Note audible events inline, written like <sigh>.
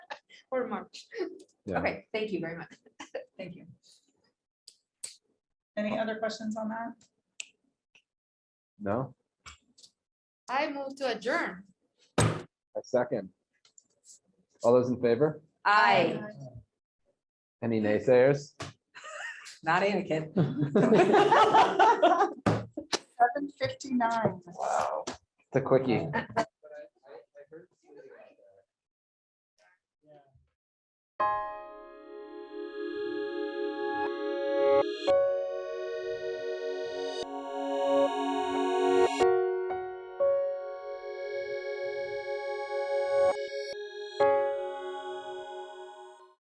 for March. Yeah. Okay, thank you very much. Thank you. Any other questions on that? No, I move to adjourn. a second. All those in favor? Aye. Any naysayers? Not Anakin. <laughs> Seven fifty-nine. It's a quickie.